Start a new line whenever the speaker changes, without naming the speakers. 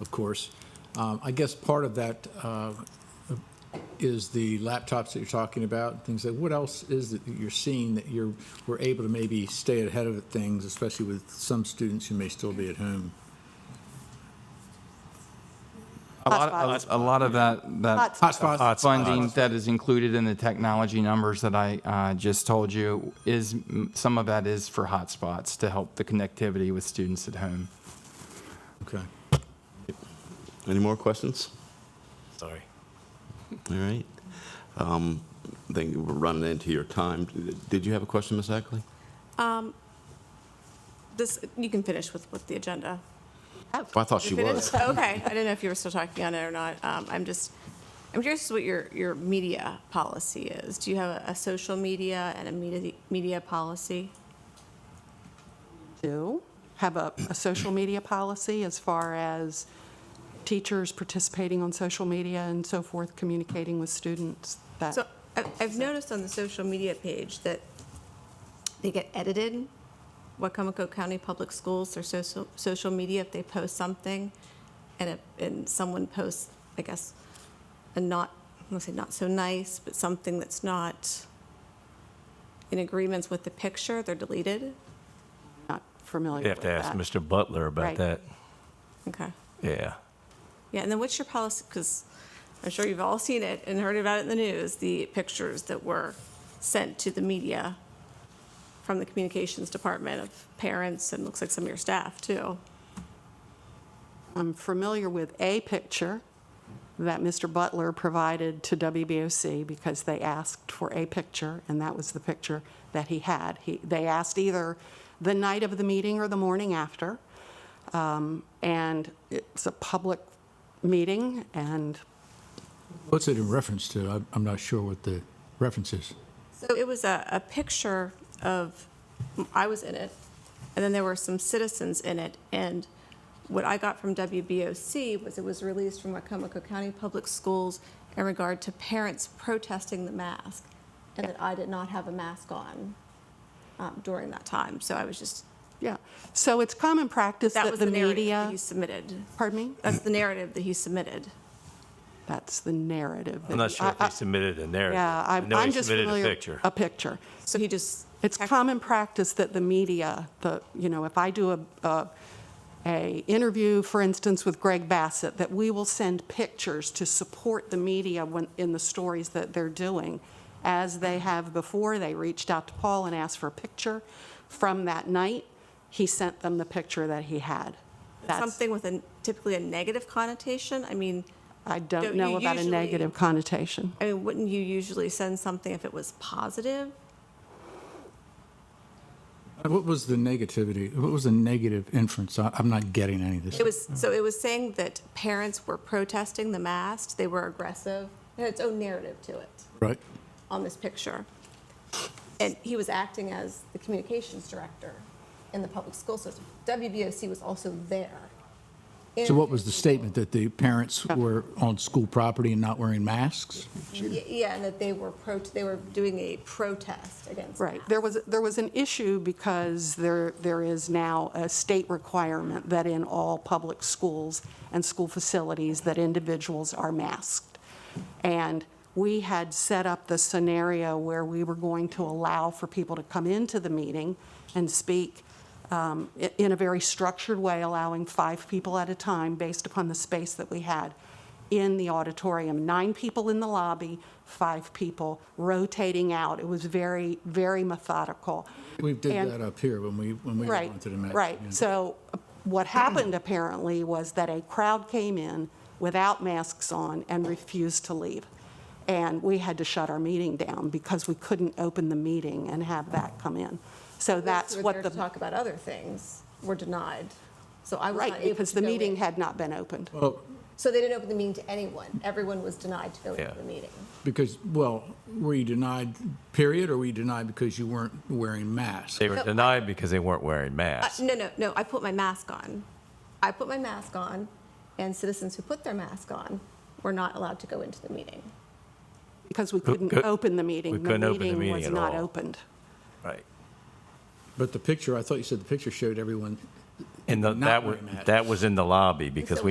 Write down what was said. of course. Um, I guess part of that uh, is the laptops that you're talking about, and things like, what else is it that you're seeing that you're, we're able to maybe stay ahead of things, especially with some students who may still be at home?
A lot,
Hotspots.
a- a lot of that, that
Hotspots.
Hotspots?
funding that is included in the technology numbers that I uh, just told you is, m- some of that is for hotspots to help the connectivity with students at home.
Okay.
Any more questions?
Sorry.
All right. Um, I think we're running into your time. Did you have a question, Ms. Ackley?
This, you can finish with, with the agenda.
I thought she
You
was.
finished? Okay, I didn't know if you were still talking on it or not. Um, I'm just, I'm curious what your, your media policy is. Do you have a, a social media and a media, media policy?
do have a, a social media policy as far as teachers participating on social media and so forth, communicating with students. That,
So I- I've noticed on the social media page that they get edited. Wacomico County Public Schools, their social, social media, if they post something and, it- and someone posts, I guess, a not, I'm gonna say not so nice, but something that's not in agreements with the picture, they're deleted.
not familiar
You
with
have to ask
that.
Mr. Butler about
Right.
that.
Okay.
Yeah.
Yeah, and then what's your policy, because I'm sure you've all seen it and heard about it in the news, the pictures that were sent to the media from the communications department of parents and looks like some of your staff too.
I'm familiar with a picture that Mr. Butler provided to WBOC because they asked for a picture, and that was the picture that he had. He, they asked either the night of the meeting or the morning after. Um, and it's a public meeting, and
What's it in reference to? I'm- I'm not sure what the reference is.
So it was a, a picture of, I was in it, and then there were some citizens in it. And what I got from WBOC was it was released from Wacomico County Public Schools in regard to parents protesting the mask, and that I did not have a mask on um, during that time. So I was just,
Yeah, so it's common practice
that
that
was the
the
narrative that
media,
he submitted.
pardon me,
That's the narrative that he submitted.
that's the narrative. that
I'm not
he-
sure
I-
if they
I-
submitted a narrative.
Yeah,
I
I'm
know he
I'm just
submitted
familiar.
a picture.
A picture.
So he just.
It's common practice that the media, the, you know, if I do a, a, a interview, for instance, with Greg Bassett, that we will send pictures to support the media when, in the stories that they're doing, as they have before. They reached out to Paul and asked for a picture from that night. He sent them the picture that he had. That's-
Something with a, typically a negative connotation. I mean,
I
Don't
don't know
you
about a
usually-
negative connotation.
I mean, wouldn't you usually send something if it was positive?
Uh, What was the negativity? What was the negative inference? I- I'm not getting any of this.
It was, so it was saying that parents were protesting the mask, they were aggressive, it had its own narrative to it
Right?
on this picture. And he was acting as the communications director in the public school system. WBOC was also there.
So what was the statement, that the parents were on school property and not wearing masks?
Y- Yeah, and that they were pro, they were doing a protest against.
Right.
masks.
There was, there was an issue because there, there is now a state requirement that in all public schools and school facilities that individuals are masked. And we had set up the scenario where we were going to allow for people to come into the meeting and speak um, i- in a very structured way, allowing five people at a time based upon the space that we had in the auditorium. Nine people in the lobby, five people rotating out. It was very, very methodical.
We did
And-
that up here when we, when we
Right,
went to the mask.
right.
yeah.
So uh, what happened apparently was that a crowd came in without masks on and refused to leave. And we had to shut our meeting down because we couldn't open the meeting and have that come in. So that's
They were
what
there
the.
to Talk about other things, were denied. So I was not
Right,
able
because
to
the
go
meeting
in.
had not been opened.
Well,
So they didn't open the meeting to anyone. Everyone was denied to go into
Yeah.
the meeting.
Because, well, were you denied, period, or were you denied because you weren't wearing masks?
They were
So I-
denied because they weren't wearing
Uh,
masks.
No, no, no, I put my mask on. I put my mask on, and citizens who put their mask on were not allowed to go into the meeting.
Because we couldn't
could-
open the meeting.
we couldn't open the meeting
was
at
not
all.
opened.
Right.
But the picture, I thought you said the picture showed everyone
And the-
Not
that was,
wearing masks.
that was in the lobby because
So
we